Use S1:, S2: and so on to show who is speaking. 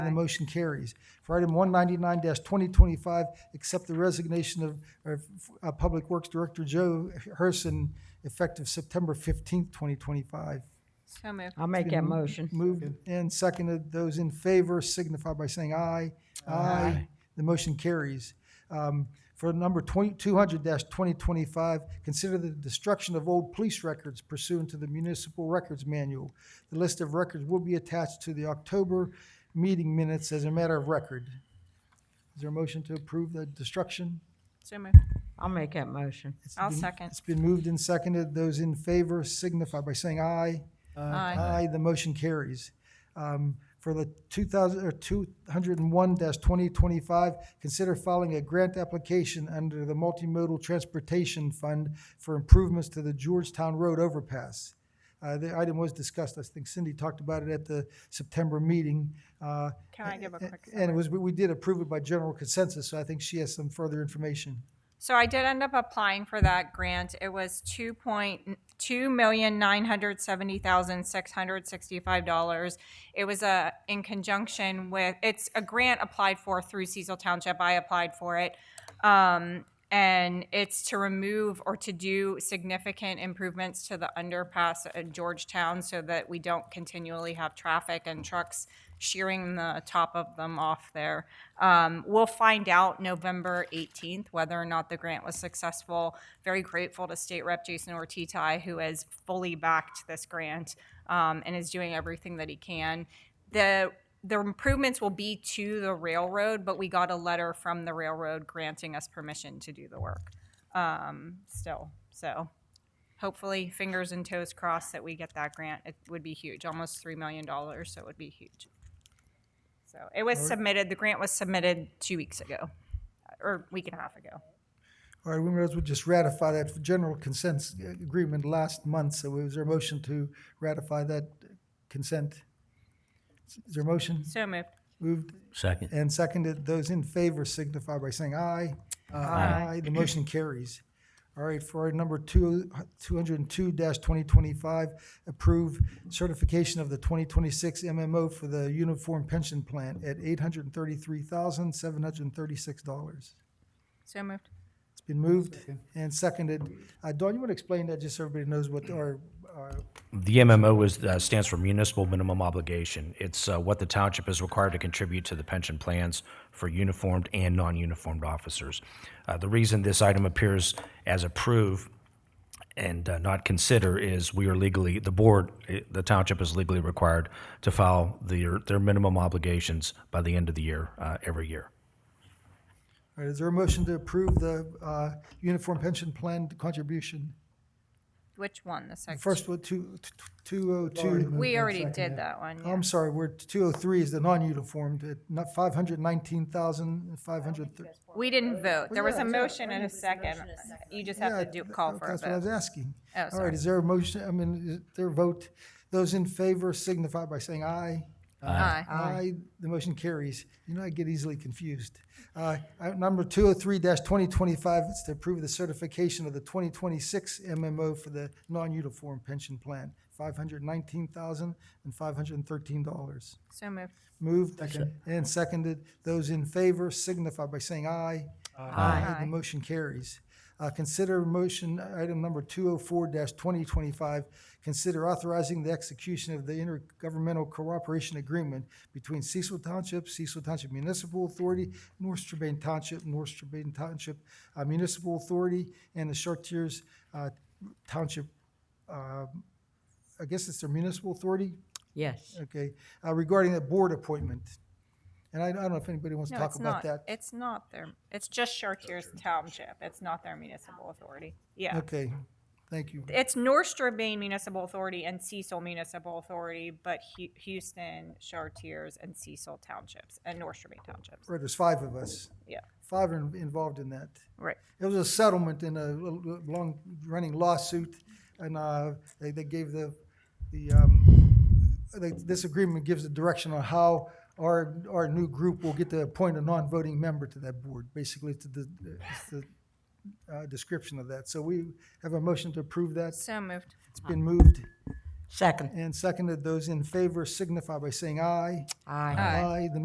S1: And the motion carries. For item one ninety-nine twenty twenty-five, accept the resignation of, of, uh, Public Works Director Joe Herson effective September fifteenth, twenty twenty-five.
S2: So moved.
S3: I'll make that motion.
S1: Moved and seconded. Those in favor signify by saying aye. Aye. The motion carries. Um, For number 20 200-2025, consider the destruction of old police records pursuant to the municipal records manual. The list of records will be attached to the October meeting minutes as a matter of record. Is there a motion to approve the destruction?
S2: So moved.
S3: I'll make that motion.
S1: It's
S2: I'll
S1: been-
S2: second.
S1: It's been moved and seconded. Those in favor signify by saying aye.
S2: Aye.
S1: Aye, the motion carries. Um, For the 2000, or 201-2025, consider filing a grant application under the Multimodal Transportation Fund for improvements to the Georgetown Road overpass. Uh, The item was discussed, I think Cindy talked about it at the September meeting. uh,
S2: Can I give a quick
S1: And it was, we did approve it by general consensus, so I think she has some further information.
S2: So I did end up applying for that grant. It was two point, two million nine hundred seventy thousand six hundred sixty-five dollars. It was a, in conjunction with, it's a grant applied for through Cecil Township. I applied for it. Um, and it's to remove or to do significant improvements to the underpass at Georgetown so that we don't continually have traffic and trucks shearing the top of them off there. Um, we'll find out November 18th whether or not the grant was successful. Very grateful to State Rep Jason Ortizai, who has fully backed this grant um, and is doing everything that he can. The the improvements will be to the railroad, but we got a letter from the railroad granting us permission to do the work. Um, still, so hopefully, fingers and toes crossed that we get that grant. It would be huge, almost three million dollars, so it would be huge. So it was submitted. The grant was submitted two weeks ago, or week and a half ago.
S1: All right, we might as well just ratify that general consent agreement last month, so is there a motion to ratify that consent? Is there a motion?
S2: So moved.
S1: Moved
S4: Second.
S1: and seconded. Those in favor signify by saying aye. Aye. The motion carries. All right, for our number two, 202-2025, approve certification of the 2026 MMO for the Uniform Pension Plan at $833,736.
S2: So moved.
S1: It's been moved and seconded. Uh, Dawn, you want to explain that, just so everybody knows what our, our-
S4: The MMO is, uh, stands for Municipal Minimum Obligation. It's uh, what the township is required to contribute to the pension plans for uniformed and non-uniformed officers. Uh, The reason this item appears as approve and uh, not consider is we are legally, the board, eh, the township is legally required to file their, their minimum obligations by the end of the year, uh, every year.
S1: all right, is there a motion to approve the uh, Uniform Pension Plan contribution?
S2: Which one? The second.
S1: First, one, two- t- t- 202,
S2: we already did that one. yeah.
S1: I'm sorry, we're, 203 is the non-uniformed, at not 519,530.
S2: We didn't vote. There was a
S1: yeah,
S2: motion and a second. You just have to do, call for a
S1: That's what I was
S2: vote.
S1: asking.
S2: Oh,
S1: All right,
S2: sorry.
S1: is there a motion, I mean, is there a vote? Those in favor signify by saying aye.
S2: Aye.
S1: Aye, the motion carries. You know, I get easily confused. Uh, item Number 203-2025, it's to approve the certification of the 2026 MMO for the non-uniform pension plan, $519,513.
S2: So moved.
S1: Moved and seconded. Those in favor signify by saying aye. Aye. The motion carries. Uh, Consider motion item number 204-2025, consider authorizing the execution of the intergovernmental cooperation agreement between Cecil Township, Cecil Township Municipal Authority, North Strabane Township, North Strabane Township uh, Municipal Authority, and the Chartiers uh, Township, uh, I guess it's their municipal authority?
S3: Yes.
S1: Okay, uh, regarding the board appointment, and I I don't know if anybody wants to
S2: No,
S1: talk
S2: it's
S1: about
S2: not.
S1: that.
S2: It's not their, it's just Chartier's Township. It's not their municipal authority. Yeah.
S1: Okay, thank you.
S2: It's North Strabane Municipal Authority and Cecil Municipal Authority, but Hu- Houston, Chartiers, and Cecil Townships, and North Strabane Townships.
S1: Right, there's five of us,
S2: Yeah,
S1: five are in- involved in that.
S2: right.
S1: It was a settlement in a l- l- long-running lawsuit, and uh, they they gave the, the, um, they- this agreement gives the direction on how our, our new group will get to appoint a non-voting member to that board, basically to the, it's the uh, description of that. So we have a motion to approve that.
S2: So moved.
S1: It's been moved
S3: Second.
S1: And seconded, those in favor signify by saying aye.
S3: Aye.
S2: Aye.
S1: Aye. The